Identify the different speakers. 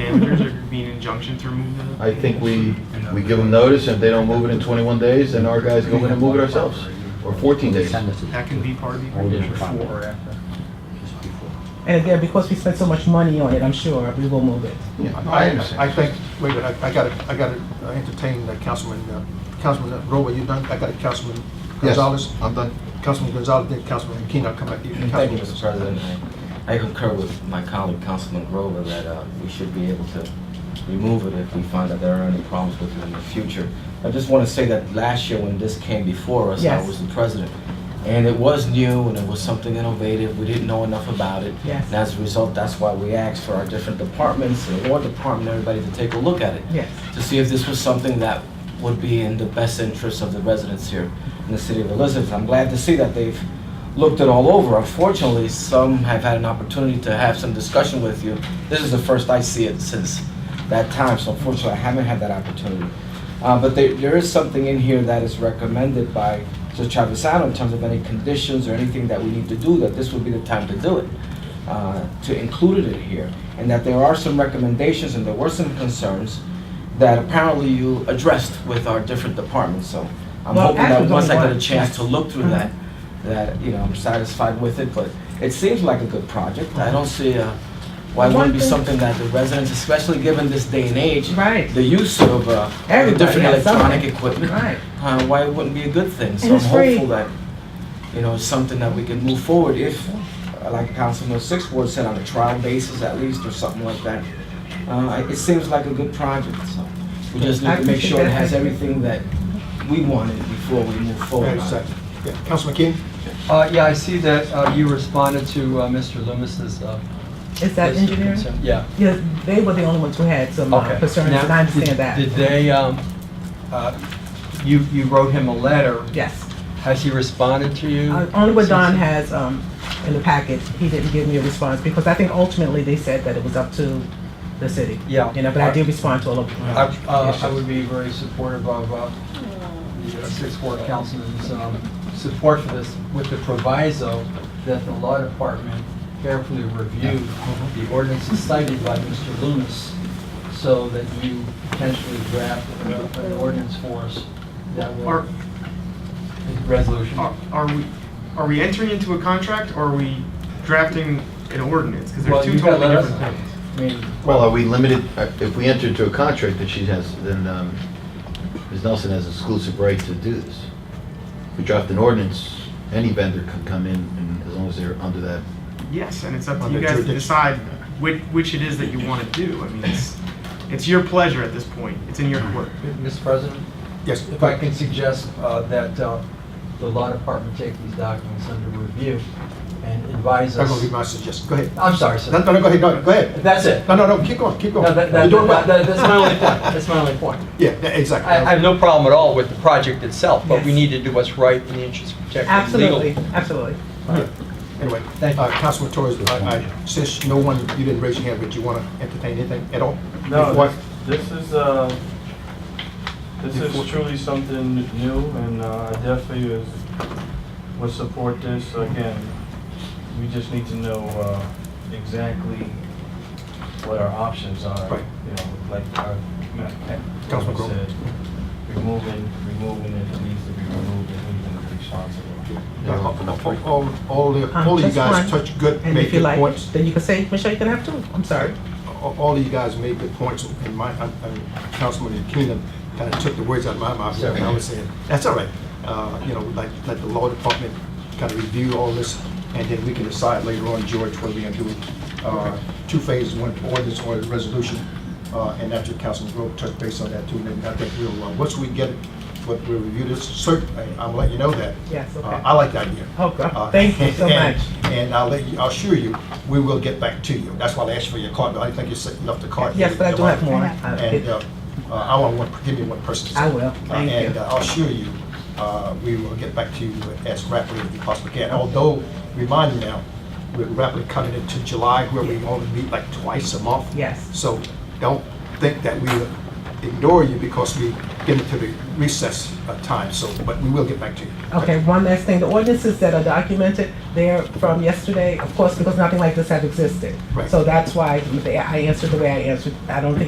Speaker 1: damages or be an injunction to remove the?
Speaker 2: I think we, we give them notice, and if they don't move it in 21 days, then our guys go in and move it ourselves, or 14 days.
Speaker 1: That can be part of the
Speaker 3: Or
Speaker 1: agreement.
Speaker 3: before or
Speaker 4: Before.
Speaker 3: after.
Speaker 4: Just before.
Speaker 5: And again, because we spent so much money on it, I'm sure we will move it.
Speaker 2: Yeah,
Speaker 3: I, I think, wait, a minute, I gotta, I gotta entertain uh, Councilman, uh, Councilman Rowe, you done? I got Councilman Gonzalez.
Speaker 2: I'm done.
Speaker 3: Councilman Gonzalez, then Councilman Keenan, I'll come back to you.
Speaker 6: Thank you, Mr. President. I I concur with my colleague, Councilman Grover, that uh, we should be able to remove it if we find that there are any problems with it in the future. I just want to say that last year when this came before us, I
Speaker 5: Yes.
Speaker 6: was the president. And it was new and it was something innovative. We didn't know enough about it.
Speaker 5: Yes.
Speaker 6: And as a result, that's why we asked for our different departments, the law department, everybody to take a look at it
Speaker 5: Yes.
Speaker 6: to see if this was something that would be in the best interest of the residents here in the city of Elizabeth. I'm glad to see that they've looked it all over. Unfortunately, some have had an opportunity to have some discussion with you. This is the first I see it since that time, so unfortunately, I haven't had that opportunity. Uh, but there, there is something in here that is recommended by Judge Travisano in terms of any conditions or anything that we need to do, that this would be the time to do it uh, to include it in here, and that there are some recommendations and there were some concerns that apparently you addressed with our different departments, so I'm
Speaker 5: Well,
Speaker 6: hoping that
Speaker 5: Apple
Speaker 6: once I
Speaker 5: don't
Speaker 6: get a
Speaker 5: work.
Speaker 6: chance to look through
Speaker 5: Mhm.
Speaker 6: that, that, you know, I'm satisfied with it, but it seems like a good project. I don't see uh, why it wouldn't
Speaker 5: One thing-
Speaker 6: be something that the residents, especially given this day and age,
Speaker 5: Right.
Speaker 6: the use of uh,
Speaker 5: Everybody
Speaker 6: different
Speaker 5: has
Speaker 6: electronic
Speaker 5: something.
Speaker 6: equipment,
Speaker 5: Right.
Speaker 6: uh, why it wouldn't be a good thing? So I'm
Speaker 5: it's free.
Speaker 6: hopeful that you know, it's something that we can move forward if, uh, like Councilman Sixth Ward said, on a trial basis at least, or something like that. Uh, it seems like a good project, so we just need to make sure it has everything that we wanted before we move forward.
Speaker 3: Wait a
Speaker 6: on it.
Speaker 3: second. Yeah, Councilman Keenan?
Speaker 4: Uh, yeah, I see that, uh, you responded to, uh, Mr. Loomis's, uh.
Speaker 5: Is that
Speaker 4: list of
Speaker 5: engineering?
Speaker 4: concern. Yeah.
Speaker 5: Yes, they were the only ones who had some uh,
Speaker 4: Okay.
Speaker 5: concerns,
Speaker 4: Now,
Speaker 5: and I understand
Speaker 4: did-
Speaker 5: that.
Speaker 4: Did they, um, uh, you, you wrote him a letter.
Speaker 5: Yes.
Speaker 4: Has he responded to you?
Speaker 5: Uh, Only what Don
Speaker 4: Since-
Speaker 5: has um, in the packet, he didn't give me a response, because I think ultimately they said that it was up to the city.
Speaker 4: Yeah.
Speaker 5: You know, but I did respond to all of
Speaker 4: I,
Speaker 5: them.
Speaker 4: uh, I would be very supportive of, uh, the uh, sixth ward councilman's, um, support for this with the proviso that the law department carefully review the ordinances cited by Mr. Loomis so that you potentially draft an- an ordinance for us that will,
Speaker 1: Are,
Speaker 4: resolution.
Speaker 1: are, are we, are we entering into a contract or are we drafting an ordinance? Because they're
Speaker 4: Well,
Speaker 1: two
Speaker 4: you gotta
Speaker 1: totally
Speaker 4: let us
Speaker 1: different things.
Speaker 4: I mean,
Speaker 2: Well, are we limited, uh, if we enter into a contract that she has, then um, Ms. Nelson has exclusive right to do this. If we draft an ordinance, any vendor can come in, and as long as they're under that.
Speaker 1: Yes, and it's up to
Speaker 3: Under
Speaker 1: you guys to
Speaker 3: jurisdiction.
Speaker 1: decide which, which it is that you want to do. I mean, it's, it's your pleasure at this point. It's in your court.
Speaker 4: Mr. President?
Speaker 3: Yes.
Speaker 4: If I can suggest uh, that uh, the law department take these documents under review and advise
Speaker 3: That's gonna be
Speaker 4: us.
Speaker 3: my suggestion. Go ahead.
Speaker 4: I'm sorry,
Speaker 3: No,
Speaker 4: sir.
Speaker 3: no, no, go ahead, no, go ahead.
Speaker 4: That's it.
Speaker 3: No, no, no, keep going, keep
Speaker 4: No,
Speaker 3: going.
Speaker 4: that-
Speaker 3: You're
Speaker 4: that-
Speaker 3: doing well.
Speaker 4: that- that- That's my only point. That's my only point.
Speaker 3: Yeah, yeah, exactly.
Speaker 4: I I have no problem at all with the project itself, but we
Speaker 5: Yes.
Speaker 4: need to do what's right in the interest of protecting legal.
Speaker 5: Absolutely, absolutely.
Speaker 3: Yeah. Anyway,
Speaker 4: Thank you.
Speaker 3: uh, Councilman Torres, I, I, since no one, you didn't raise your hand, but you wanna entertain anything at all?
Speaker 7: No,
Speaker 3: Before-
Speaker 7: this- this is, uh, this
Speaker 3: Before-
Speaker 7: is truly something new, and uh, I definitely is, would support this. Again, we just need to know uh, exactly what our options are.
Speaker 3: Right.
Speaker 7: You know, like our,
Speaker 3: Councilman Grove.
Speaker 7: said, removing, removing it needs to be removed, and we've been responsible.
Speaker 3: Yeah, All, all- all, the-
Speaker 5: Um,
Speaker 3: all of you
Speaker 5: just
Speaker 3: guys
Speaker 5: one.
Speaker 3: touch good,
Speaker 5: And
Speaker 3: make
Speaker 5: if you
Speaker 3: good
Speaker 5: like,
Speaker 3: points.
Speaker 5: then you can say, Michelle, you can have two. I'm sorry.
Speaker 3: All all of you guys made good points, and my, I- I- Councilman Keenan kind of took the words out of my mouth, so I was saying, that's all right. Uh, You know, like, let the law department kind of review all this, and then we can decide later on, George, whether we're going to do uh, two phases, one ordinance or a resolution, Uh, and after Councilman Grove touched base on that too, and then I think we'll, uh, once we get, what we review this, certainly, I'll let you know that.
Speaker 5: Yes, okay.
Speaker 3: Uh, I like the idea.
Speaker 5: Okay,
Speaker 3: Uh,
Speaker 5: thank you so
Speaker 3: and-
Speaker 5: much.
Speaker 3: And I'll let you, I'll assure you, we will get back to you. That's why I asked for your card, but I think you said you left the card.
Speaker 5: Yes, but I do have more.
Speaker 3: And
Speaker 5: I
Speaker 3: uh, uh, I want one, give me one person.
Speaker 5: I will,
Speaker 3: Uh,
Speaker 5: thank you.
Speaker 3: And uh, I'll assure you, uh, we will get back to you as rapidly as we possibly can. Although, remind you now, we're rapidly coming into July where we only meet like twice a month.
Speaker 5: Yes.
Speaker 3: So don't think that we, ignore you because we get into the recess uh, time, so, but we will get back to you.
Speaker 5: Okay, one last thing, the ordinances that are documented, they're from yesterday, of course, because nothing like this had existed.
Speaker 3: Right.
Speaker 5: So that's why they- I answered the way I answered. I don't think